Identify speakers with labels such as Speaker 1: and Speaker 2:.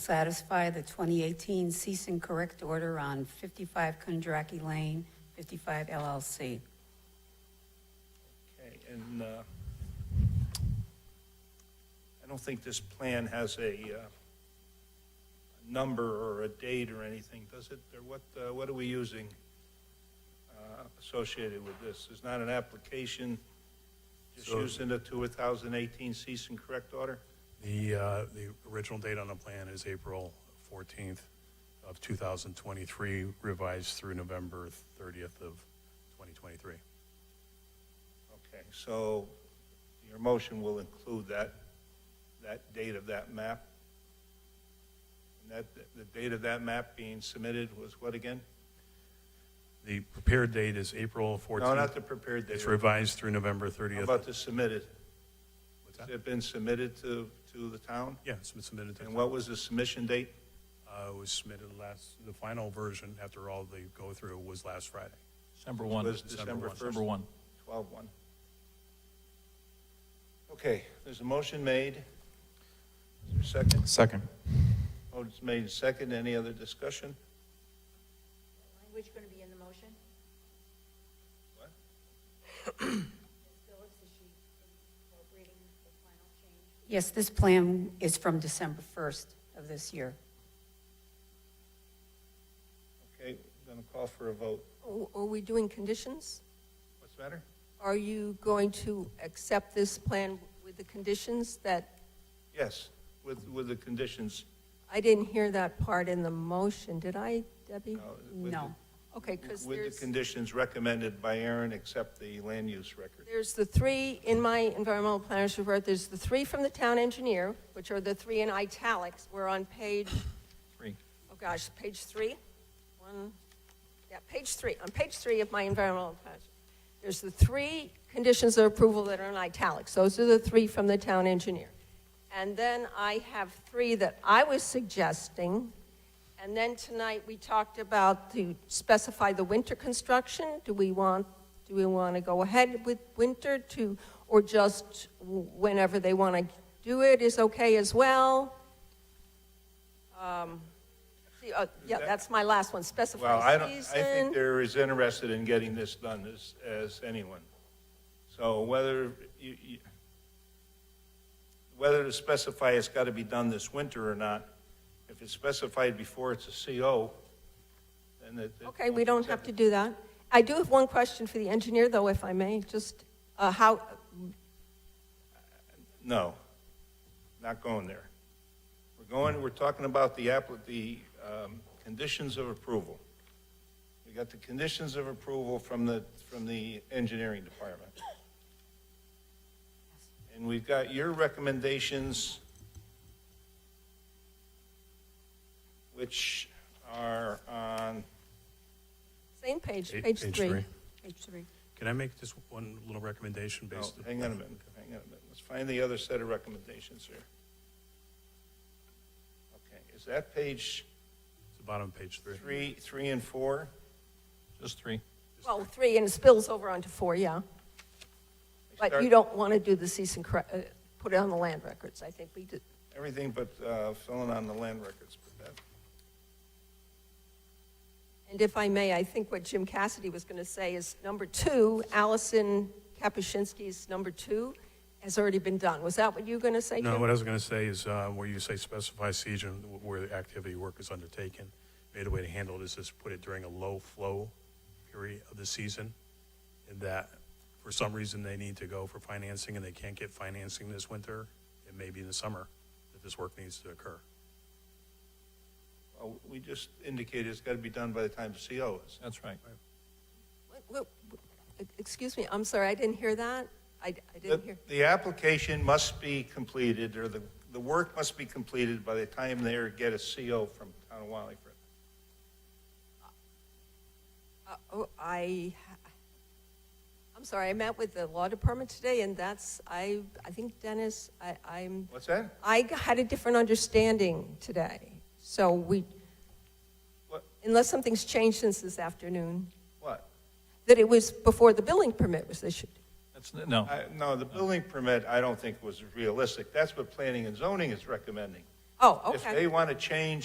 Speaker 1: satisfy the 2018 cease and correct order on 55 Kundraki Lane, 55 LLC.
Speaker 2: Okay, and uh, I don't think this plan has a uh, number or a date or anything, does it? Or what, uh, what are we using uh, associated with this? It's not an application, just
Speaker 3: So-
Speaker 2: using the 2018 cease and correct order?
Speaker 3: The, uh, the original date on the plan is April 14th of 2023, revised through November 30th of 2023.
Speaker 2: Okay, so your motion will include that, that date of that map? And that, the date of that map being submitted was what again?
Speaker 3: The prepared date is April 14th.
Speaker 2: No, not the prepared date.
Speaker 3: It's revised through November
Speaker 2: How
Speaker 3: 30th.
Speaker 2: about the submitted?
Speaker 3: What's
Speaker 2: Has
Speaker 3: that?
Speaker 2: it been submitted to, to the town?
Speaker 3: Yeah, it's been submitted. to-
Speaker 2: And what was the submission date?
Speaker 3: Uh, It was submitted last, the final version, after all the go-through, was last Friday.
Speaker 4: December 1.
Speaker 2: Was December 1st?
Speaker 4: December 1.
Speaker 2: 12/1. Okay, there's a motion made. Is there a second?
Speaker 4: Second.
Speaker 2: Motion's made second. Any other discussion?
Speaker 5: Language going to be in the motion?
Speaker 2: What?
Speaker 5: Ms. Phillips, is she incorporating the final change?
Speaker 1: Yes, this plan is from December 1st of this year.
Speaker 2: Okay, I'm going to call for a vote.
Speaker 6: Oh, Are we doing conditions?
Speaker 2: What's the matter?
Speaker 6: Are you going to accept this plan with the conditions that,
Speaker 2: Yes, with, with the conditions.
Speaker 6: I didn't hear that part in the motion, did I, Debbie?
Speaker 2: uh, with the-
Speaker 1: No.
Speaker 6: Okay, because
Speaker 2: With the
Speaker 6: there's,
Speaker 2: conditions recommended by Aaron, except the land use record.
Speaker 6: there's the three, in my environmental planner's report, there's the three from the town engineer, which are the three in italics. We're on page,
Speaker 2: Three.
Speaker 6: oh gosh, page three? One, yeah, page three, on page three of my environmental plan. There's the three conditions of approval that are in italics. Those are the three from the town engineer. And then I have three that I was suggesting. And then tonight, we talked about to specify the winter construction. Do we want, do we want to go ahead with winter to, or just whenever they want to do it is okay as well? Um, see, uh, Yeah, that's my last one, specify
Speaker 2: Well, I don't, I
Speaker 6: season.
Speaker 2: think they're as interested in getting this done as, as anyone. So whether you, you, whether to specify it's got to be done this winter or not, if it's specified before it's a CO, then it. it
Speaker 6: Okay, we
Speaker 2: won't
Speaker 6: don't
Speaker 2: accept
Speaker 6: have to
Speaker 2: it.
Speaker 6: do that. I do have one question for the engineer, though, if I may, just uh, how,
Speaker 2: No, not going there. We're going, we're talking about the appli, the, um, conditions of approval. We got the conditions of approval from the, from the engineering department. And we've got your recommendations, which are on,
Speaker 6: same page,
Speaker 3: Eight-
Speaker 6: page three.
Speaker 1: Page three.
Speaker 3: Can I make just one little recommendation
Speaker 2: no,
Speaker 3: based?
Speaker 2: hang on a minute, hang on a minute. Let's find the other set of recommendations here. Okay, is that page
Speaker 3: It's the bottom of page three.
Speaker 2: Three, three and four?
Speaker 4: Just three.
Speaker 6: Well, three, and it spills over onto four, yeah. But you don't want to do the cease and correct, uh, put it on the land records, I think we did.
Speaker 2: Everything but uh, filling on the land records. but that-
Speaker 6: And if I may, I think what Jim Cassidy was going to say is, number two, Allison Kapuscinski's number two has already been done. Was that what you were going to say, Jim?
Speaker 3: No, what I was going to say is uh, where you say specify season, wh- where the activity work is undertaken, maybe the way to handle it is just put it during a low flow period of the season, and that for some reason they need to go for financing and they can't get financing this winter, it may be in the summer that this work needs to occur.
Speaker 2: well, uh, We just indicated it's got to be done by the time the CO is.
Speaker 4: That's right.
Speaker 6: Wait, wait, wait, Excuse me, I'm sorry, I didn't hear that. I I didn't
Speaker 2: The
Speaker 6: hear.
Speaker 2: the application must be completed, or the, the work must be completed by the time they get a CO from Town of Wallingford.
Speaker 6: Uh, Oh, I, ha- I'm sorry, I met with the law department today, and that's, I, I think Dennis, I, I'm,
Speaker 2: What's that?
Speaker 6: I g- had a different understanding today. So we,
Speaker 2: What?
Speaker 6: unless something's changed since this afternoon,
Speaker 2: What?
Speaker 6: that it was before the building permit was issued.
Speaker 4: That's, no,
Speaker 2: I- No, the building permit, I don't think was realistic. That's what planning and zoning is recommending.
Speaker 6: Oh, okay.
Speaker 2: If they want to change